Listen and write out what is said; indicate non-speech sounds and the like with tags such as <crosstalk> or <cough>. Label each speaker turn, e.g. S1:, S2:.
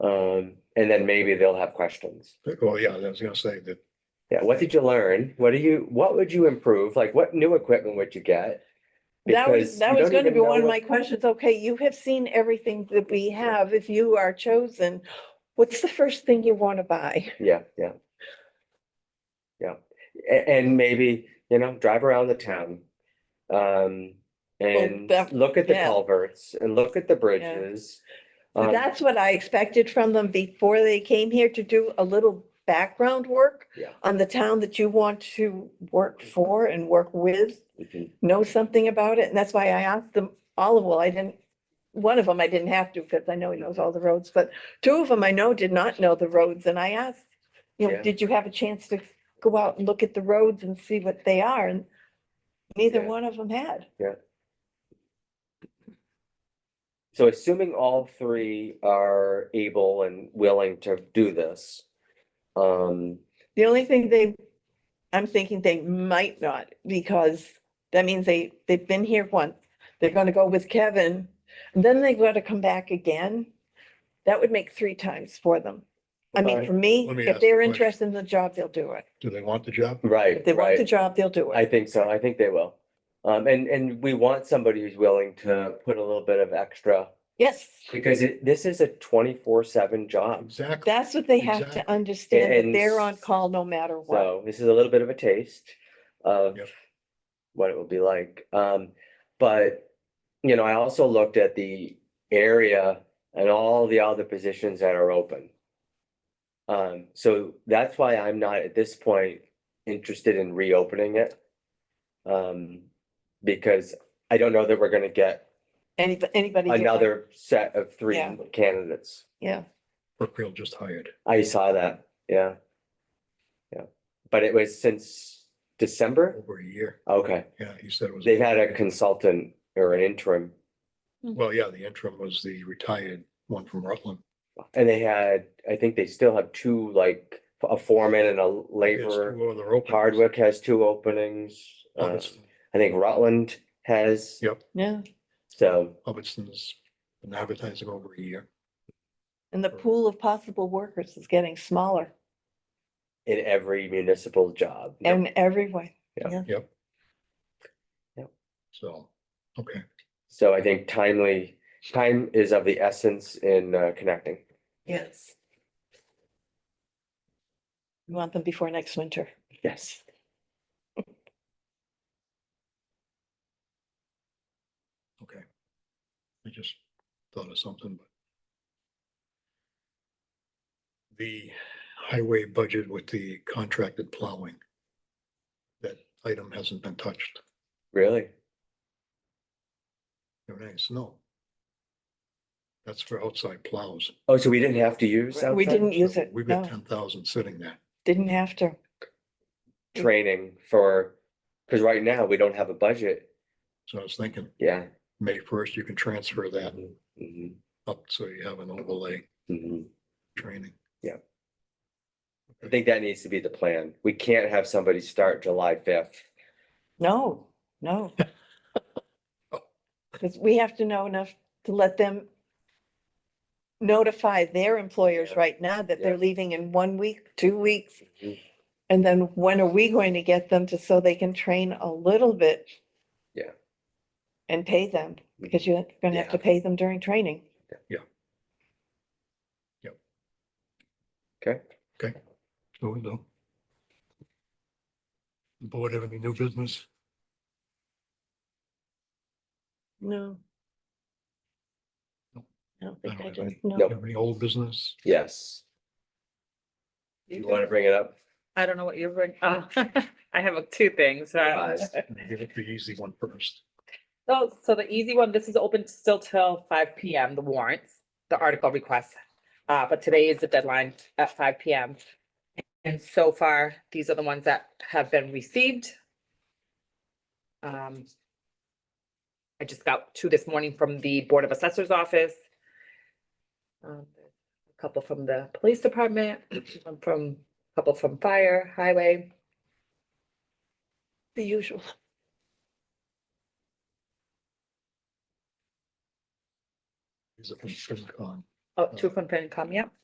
S1: Um, and then maybe they'll have questions.
S2: Well, yeah, I was gonna say that,
S1: Yeah, what did you learn? What do you, what would you improve? Like, what new equipment would you get?
S3: That
S1: Because
S3: was, that
S1: you
S3: was
S1: don't
S3: gonna
S1: even
S3: be
S1: know
S3: one of
S1: what-
S3: my questions. Okay, you have seen everything that we have. If you are chosen, what's the first thing you wanna buy?
S1: Yeah, yeah. Yeah, A- and maybe, you know, drive around the town. Um, and
S3: that-
S1: look at the
S3: yeah.
S1: culverts and look at the bridges. Um,
S3: That's what I expected from them before they came here to do a little background work
S1: Yeah. Mm.
S3: on the town that you want to work for and work with,
S1: mhm,
S3: know something about it. And that's why I asked them all of, well, I didn't, one of them I didn't have to because I know he knows all the roads, but two of them I know did not know the roads and I asked, you know,
S1: Yeah.
S3: did you have a chance to go out and look at the roads and see what they are? And neither
S1: Yeah.
S3: one of them had.
S1: So assuming all three are able and willing to do this. Um,
S3: The only thing they, I'm thinking they might not, because that means they, they've been here once. They're gonna go with Kevin, and then they gotta come back again. That would make three times for them. I mean,
S1: Right.
S3: for me,
S2: Let me ask
S3: if
S2: you a
S3: they're
S2: question.
S3: interested in the job, they'll do it.
S2: do they want the job?
S1: right,
S3: If they want the
S1: right.
S3: job, they'll do
S1: I
S3: it.
S1: think so. I think they will. Um, and, and we want somebody who's willing to put a little bit of extra,
S3: Yes,
S1: because it, this is a twenty-four seven job.
S2: Exactly.
S3: that's what they have
S2: Exactly.
S3: to understand, that
S1: And
S3: they're on call no matter what.
S1: So this is a little bit of a taste of
S2: Yep.
S1: what it will be like. Um, but, you know, I also looked at the area and all the other positions that are open. Um, so that's why I'm not at this point interested in reopening it. Um, because I don't know that we're gonna get
S3: Any, anybody. who-
S1: another set of three
S3: Yeah.
S1: candidates.
S3: Yeah,
S2: Brookfield just hired.
S1: I saw that, yeah. Yeah, but it was since December,
S2: over a year.
S1: okay,
S2: Yeah, he said it was.
S1: they've had a consultant or an interim,
S2: Well, yeah, the interim was the retired one from Rutland.
S1: and they had, I think they still have two, like, a foreman and a
S2: There's
S1: laborer.
S2: two other openings. Oh,
S1: Hardwick has two openings, uh,
S2: Hubbardston-
S1: I think Rutland has.
S2: Yep.
S3: yeah.
S1: So,
S2: Hubbardston's been advertising over a year.
S3: And the pool of possible workers is getting smaller
S1: in every municipal job.
S3: in every way.
S2: Yep.
S1: Yep.
S2: So, okay,
S1: So I think timely, time is of the essence in uh, connecting.
S3: Yes. We want them before next winter.
S1: Yes.
S2: okay. I just thought of something, but. The highway budget with the contracted plowing. That item hasn't been touched.
S1: Really?
S2: No, that's snow. That's for outside plows.
S1: Oh, so we didn't have to use
S3: We
S1: outside
S3: didn't use
S2: So
S3: it, Oh.
S2: We've got
S3: no.
S2: ten thousand sitting there.
S3: Didn't have to.
S1: training for, because right now we don't have a budget.
S2: So I was thinking,
S1: Yeah.
S2: May first, you can transfer that
S1: Mhm,
S2: up so you have an overlay
S1: mhm.
S2: training.
S1: I think that needs to be the plan. We can't have somebody start July fifth.
S3: No,
S1: <laughs>
S3: no. Because we have to know enough to let them notify their employers
S1: Yeah.
S3: right now that they're
S1: Yeah.
S3: leaving in one week, two weeks.
S1: Mhm.
S3: And then when are we going to get them to, so they can train a little bit?
S1: Yeah.
S3: And pay them, because you're gonna have to pay them during training.
S1: Okay,
S2: So we know. The Board have any new business?
S3: No.
S2: Nope.
S3: I don't
S2: I
S3: think I
S2: don't have
S3: do.
S2: any.
S3: No.
S1: Nope.
S2: Have any old business?
S1: yes. You want to bring it up?
S4: I don't know what you're bringing. Oh, <laughs> I have uh, two things. uh,
S1: Nice.
S2: Give it the easy one first.
S4: So, so the easy one, this is open still till five P M, the warrants, the article requests. Uh, but today is the deadline at five P M. And so far, these are the ones that have been received. Um. I just got two this morning from the Board of Assessors Office. Um, A Couple from the Police Department, <clears throat> one from, a couple from Fire, Highway.
S3: The usual.
S2: These are from FinCon.
S4: Oh, to confirm, come, yeah.